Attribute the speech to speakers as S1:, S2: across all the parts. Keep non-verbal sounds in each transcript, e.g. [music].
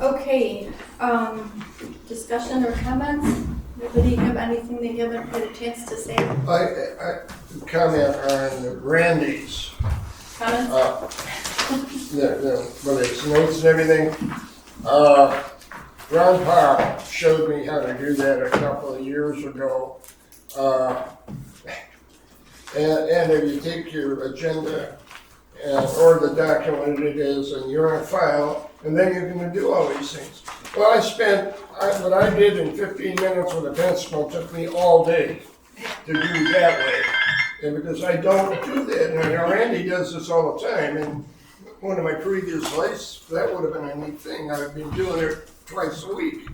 S1: Okay, um, discussion or comments? Anybody have anything they haven't had a chance to say?
S2: I, I comment on Randy's,
S1: Comments?
S2: uh, the, the, whether it's notes and everything. Uh, Ron Powell showed me how to do that a couple of years ago. Uh, and, and if you take your agenda and, or the document it is and you're on file, and then you're gonna do all these things. Well, I spent, I, what I did in fifteen minutes with a pencil took me all day to do that way. And because I don't do that, and now Randy does this all the time, and one of my previous lives, that would have been a neat thing, I've been doing it twice a week.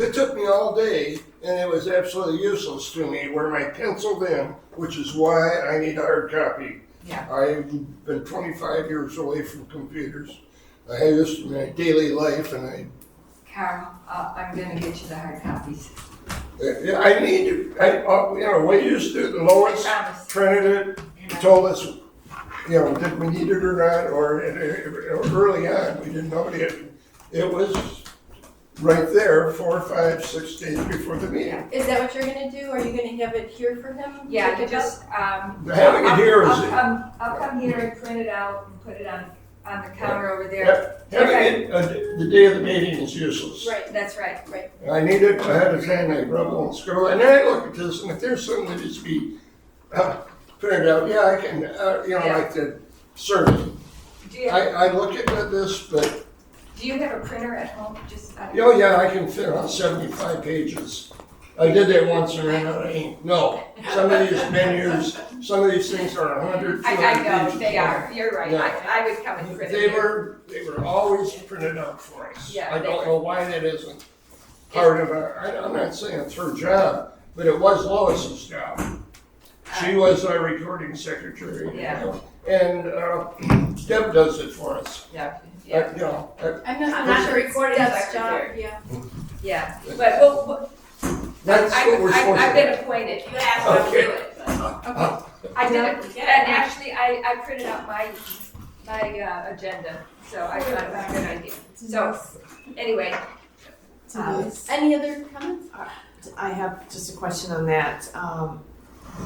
S2: It took me all day, and it was absolutely useless to me, where I penciled in, which is why I need a hard copy.
S3: Yeah.
S2: I've been twenty-five years away from computers, I have this in my daily life, and I
S3: Carl, uh, I'm gonna get you the hard copies.
S2: Yeah, I need, to- I, uh, you know, we used to, Lois
S3: Promise.
S2: printed it, told us, you know, did we need it or not, or it- it- early on, we didn't know it. It was right there, four, five, six days before the meeting.
S1: Is that what you're gonna do? Are you gonna have it here for him?
S3: Yeah,
S1: Pick
S3: you
S1: it up?
S3: just, um.
S2: Having it
S3: I'll-
S2: here is,
S3: I'll come, I'll come here and print it out and put it on, on the counter over there.
S2: Yep. having it, uh, the day of the meeting is useless.
S1: Right,
S3: That's right.
S2: I need it ahead of time, I rubble and scroll, and then I look at this, and if there's something that needs to be, uh, printed out, yeah, I can, uh, you know,
S3: Yeah.
S2: like the survey.
S3: Do you,
S2: I, I look at this, but,
S3: do you have a printer at home? Just, uh,
S2: oh yeah, I can fit on seventy-five pages. I did that once and ran out of ink. No, some of these menus, some of these things are a hundred, two
S3: I, I
S2: hundred
S3: know,
S2: pages.
S3: they are. You're right.
S2: Yeah.
S3: I, I would come and print it
S2: They
S3: here.
S2: were, they were always printed out for us.
S3: Yeah,
S2: I
S3: they
S2: don't
S3: were.
S2: know why that isn't part of our, I, I'm not saying it's her job, but it was Lois's job. She was our recording secretary.
S3: Uh, Yeah.
S2: And, uh, [clears throat] Deb does it for us.
S3: Yeah,
S2: Uh,
S3: yeah,
S2: You know, uh,
S1: I'm not, really
S3: I'm not
S1: sure
S3: the
S1: it's
S3: recording
S1: Deb's job,
S3: secretary.
S1: yeah.
S3: yeah. But, well, well,
S2: that's
S3: I,
S2: what we're
S3: I,
S2: supposed to
S3: I've
S2: do.
S3: been appointed.
S4: You asked them to
S2: Okay.
S4: do it, but
S2: Uh,
S3: I did
S4: Yeah.
S3: it, and actually, I, I printed out my, my, uh, agenda, so I thought it was a good idea. So, anyway,
S5: Um,
S1: Any other comments?
S5: I have just a question on that. Um,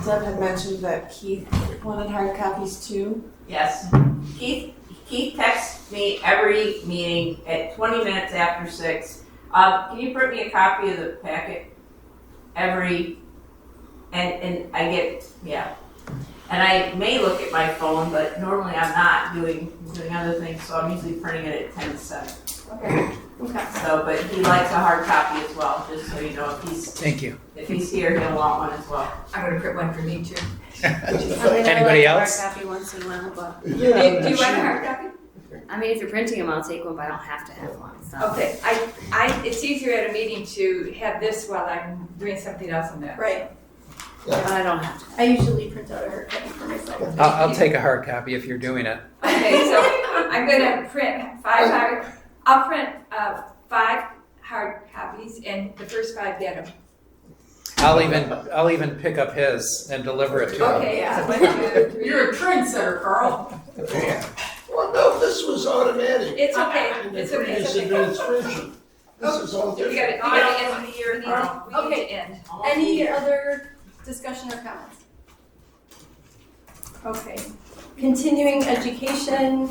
S5: Deb had mentioned that Keith wanted hard copies too.
S4: yes. Keith, Keith texts me every meeting at twenty minutes after six. Uh, can you print me a copy of the packet? Every, and, and I get, yeah. And I may look at my phone, but normally I'm not doing, doing other things, so I'm usually printing it at ten to seven.
S3: okay,
S1: Okay.
S4: So, but he likes a hard copy as well, just so you know, if he's,
S6: Thank you.
S4: if he's here, he'll want one as well.
S3: I'm gonna print one for me too.
S6: Anybody else?
S7: Copy once in a while, but
S2: yeah,
S3: Do you, do you
S2: that's
S3: want a
S2: it.
S3: hard copy?
S7: I mean, if you're printing them, I'll take one, but I don't have to have one. So.
S3: Okay, I, I, it's easier at a meeting to have this while I'm doing something else on that.
S1: Right,
S7: I don't have
S1: I usually print out a hard copy for myself.
S6: I'll, I'll take a hard copy if you're doing it.
S3: Okay, so I'm gonna print five hard, I'll print, uh, five hard copies, and the first five get them.
S6: I'll even I'll even pick up his and deliver it to him.
S3: Okay, so one, two, three.
S4: a trendsetter, Carl.
S2: Yeah. Well, no, this was automatic.
S3: It's okay,
S2: In the
S3: it's okay,
S2: previous
S3: it's okay.
S2: administration. This is all
S3: We gotta, we
S2: different.
S3: gotta end the year, we need to, we need
S1: Okay.
S3: to end.
S1: Any other discussion or comments? Okay, continuing education,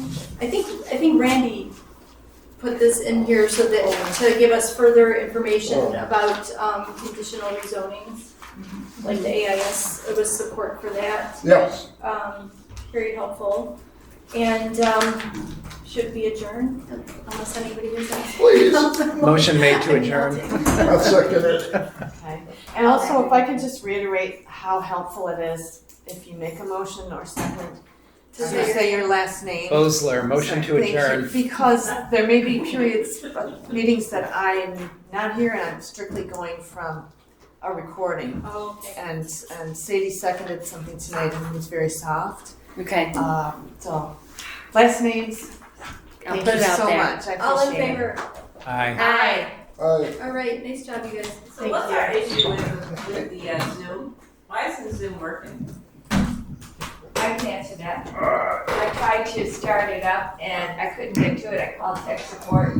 S1: I think, I think Randy put this in here so that, to give us further information
S6: Oh.
S1: about, um, conditional rezonings. Like the AIS, it was support for that,
S2: Yes,
S1: um, very helpful. And, um, should we adjourn unless anybody has anything?
S2: please.
S6: Motion made to
S1: I mean, I'll
S6: adjourn.
S1: [laughs] take-
S2: I'll second it.
S5: Okay. And also, if I could just reiterate how helpful it is if you make a motion or second to
S1: To say-
S5: say your last name.
S6: Bosler, motion to
S5: Thank you.
S6: adjourn.
S5: Because there may be periods, of meetings that I'm not here and I'm strictly going from a recording.
S1: Oh, okay.
S5: And, and Sadie seconded something tonight and it was very soft.
S7: to. Okay,
S5: Um, so, last names,
S7: I'll
S5: thank
S7: put
S5: you
S7: it out
S5: so
S7: there.
S5: much, I Oh,
S1: Um, All
S5: appreciate it.
S1: in favor?
S6: Aye.
S7: Aye.
S2: I,
S1: All right, nice job, you guys.
S4: So what's our issue with, with the uh, Zoom? Why isn't Zoom working?
S3: I can answer that. I tried to start it up and I couldn't get to it, I called tech support,